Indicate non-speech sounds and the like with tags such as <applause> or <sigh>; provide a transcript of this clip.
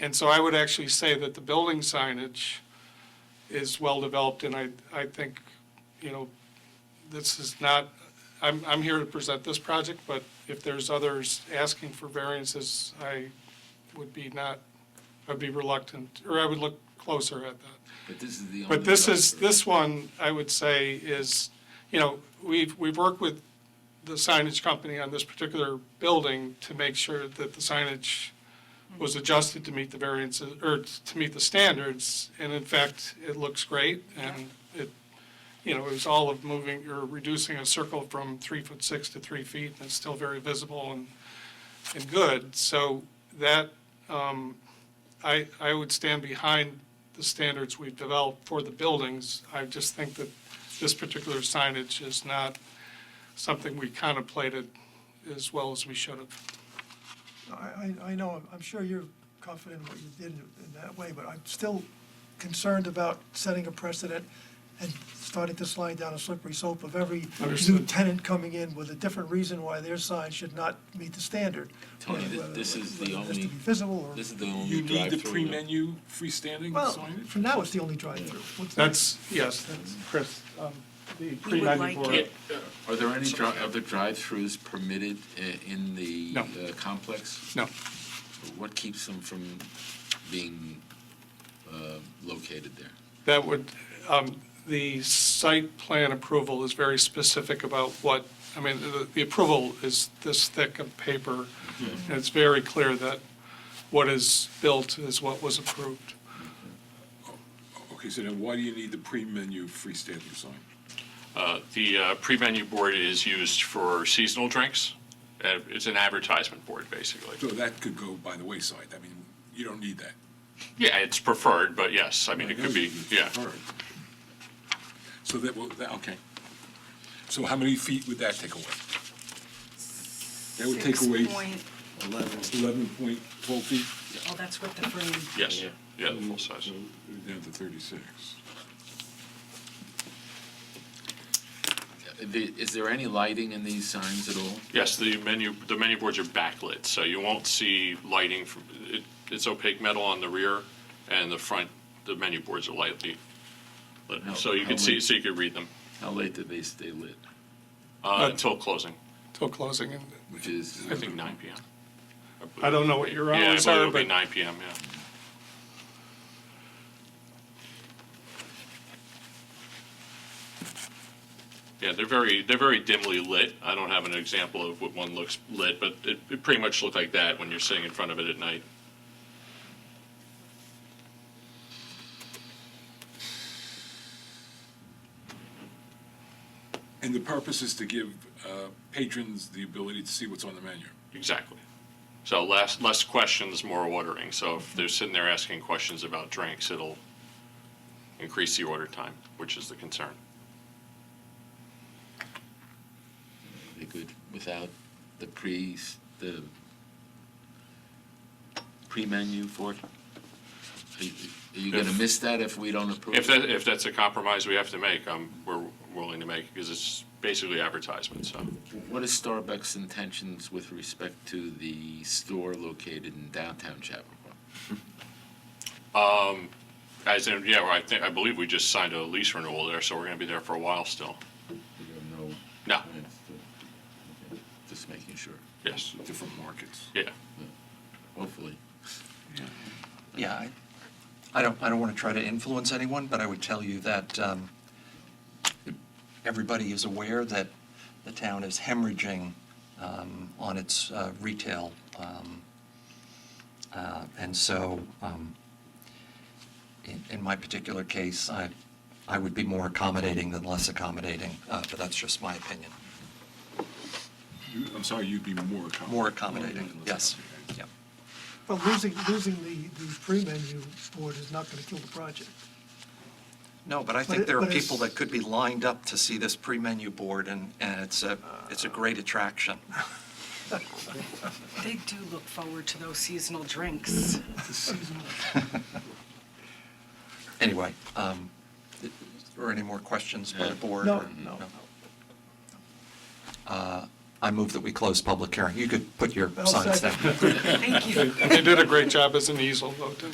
And so I would actually say that the building signage is well-developed, and I, I think, you know, this is not, I'm, I'm here to present this project, but if there's others asking for variances, I would be not, I'd be reluctant, or I would look closer at that. But this is the only. But this is, structure. this one, I would say, is, you know, we've, we've worked with the signage company on this particular building to make sure that the signage was adjusted to meet the variances, or to meet the standards, and in fact, it looks great, and it, you know, it was all of moving, or reducing a circle from three foot six to three feet, and it's still very visible and, and good, so that, um, I, I would stand behind the standards we've developed for the buildings. I just think that this particular signage is not something we contemplated as well as we should have. I, I, I know, I'm sure you're confident in what you did in that way, but I'm still concerned about setting a precedent and starting to slide down a slippery slope of every new Understood. tenant coming in with a different reason why their sign should not meet the standard. Tony, thi- whether- this is the whether it has to only- be visible or, This is the only You drive-through. need the that- pre-menu freestanding well, signage? for now, it's the only drive-through. What's That's, yes, that's, Chris, um, the We would like pre-ninety-four. Yeah, Are there any dri- other drive-throughs permitted i- in the No. uh, complex? No, What keeps them from being uh, located there? that would, um, the site plan approval is very specific about what, I mean, the, the approval is this thick of paper. And it's very clear that what is built is what was approved. Okay, so then why do you need the pre-menu freestanding sign? Uh, The uh, pre-menu board is used for seasonal drinks. Uh, It's an advertisement board, basically. So that could go by the wayside, I mean, you don't need that. Yeah, it's preferred, but yes, I mean, it could be, yeah. So that, will- that, okay. So how many feet would that take away? That would take Six away point- eleven point twelve feet, Oh, that's what the frame. Yes, yeah, the full size. down to thirty-six. Uh, the- Is there any lighting in these signs at all? Yes, the menu, the menu boards are backlit, so you won't see lighting from, it- it's opaque metal on the rear, and the front, the menu boards are lightly lit. How- So you how can see, late? so you can read them How late do they stay lit? uh, until closing, till closing. and Which is, I think 9 PM. I don't know what your Yeah, I hours believe are, it'll be but 9 PM, yeah. Yeah, they're very, they're very dimly lit. I don't have an example of what one looks lit, but it, it pretty much looked like that when you're sitting in front of it at night. And the purpose is to give uh, patrons the ability to see what's on the menu. Exactly. So less, less questions, more ordering. So if they're sitting there asking questions about drinks, it'll increase the order time, which is the concern. they could, without the pre, the pre-menu for it? Are you- Are you going to If- miss that if we don't approve? If it? that, if that's a compromise we have to make, i we're willing to make, because it's basically advertisement, so. What is Starbucks' intentions with respect to the store located in downtown Chappaqua? Um, as in, yeah, well, I think, I believe we just signed a lease renewal there, so we're gonna be there for a while still. There are no No, plans to- okay, Just making sure, yes, Different markets. yeah. hopefully. Yeah, I, I don't, I don't want to try to influence anyone, but I would tell you that um, everybody is aware that the town is hemorrhaging um, on its uh, retail. um, uh, And so, um, in, in my particular case, I, I would be more accommodating than less accommodating, uh, but that's just my opinion. You- I'm sorry, you'd be more Oh, accommodating. More accommodating, yes. Yeah. But losing, losing the, the pre-menu board is not gonna kill the project. No, but I But it- think there are but it's- people that could be lined up to see this pre-menu board, and, and it's a, it's a great attraction. <laughs> They do look forward to those seasonal drinks. Anyway, um, or any more questions by the board? No, or- no. Uh, I move that we close public hearing. You could put your I'll signs down. second. Thank you. <laughs> They did a great job as an easel, though, didn't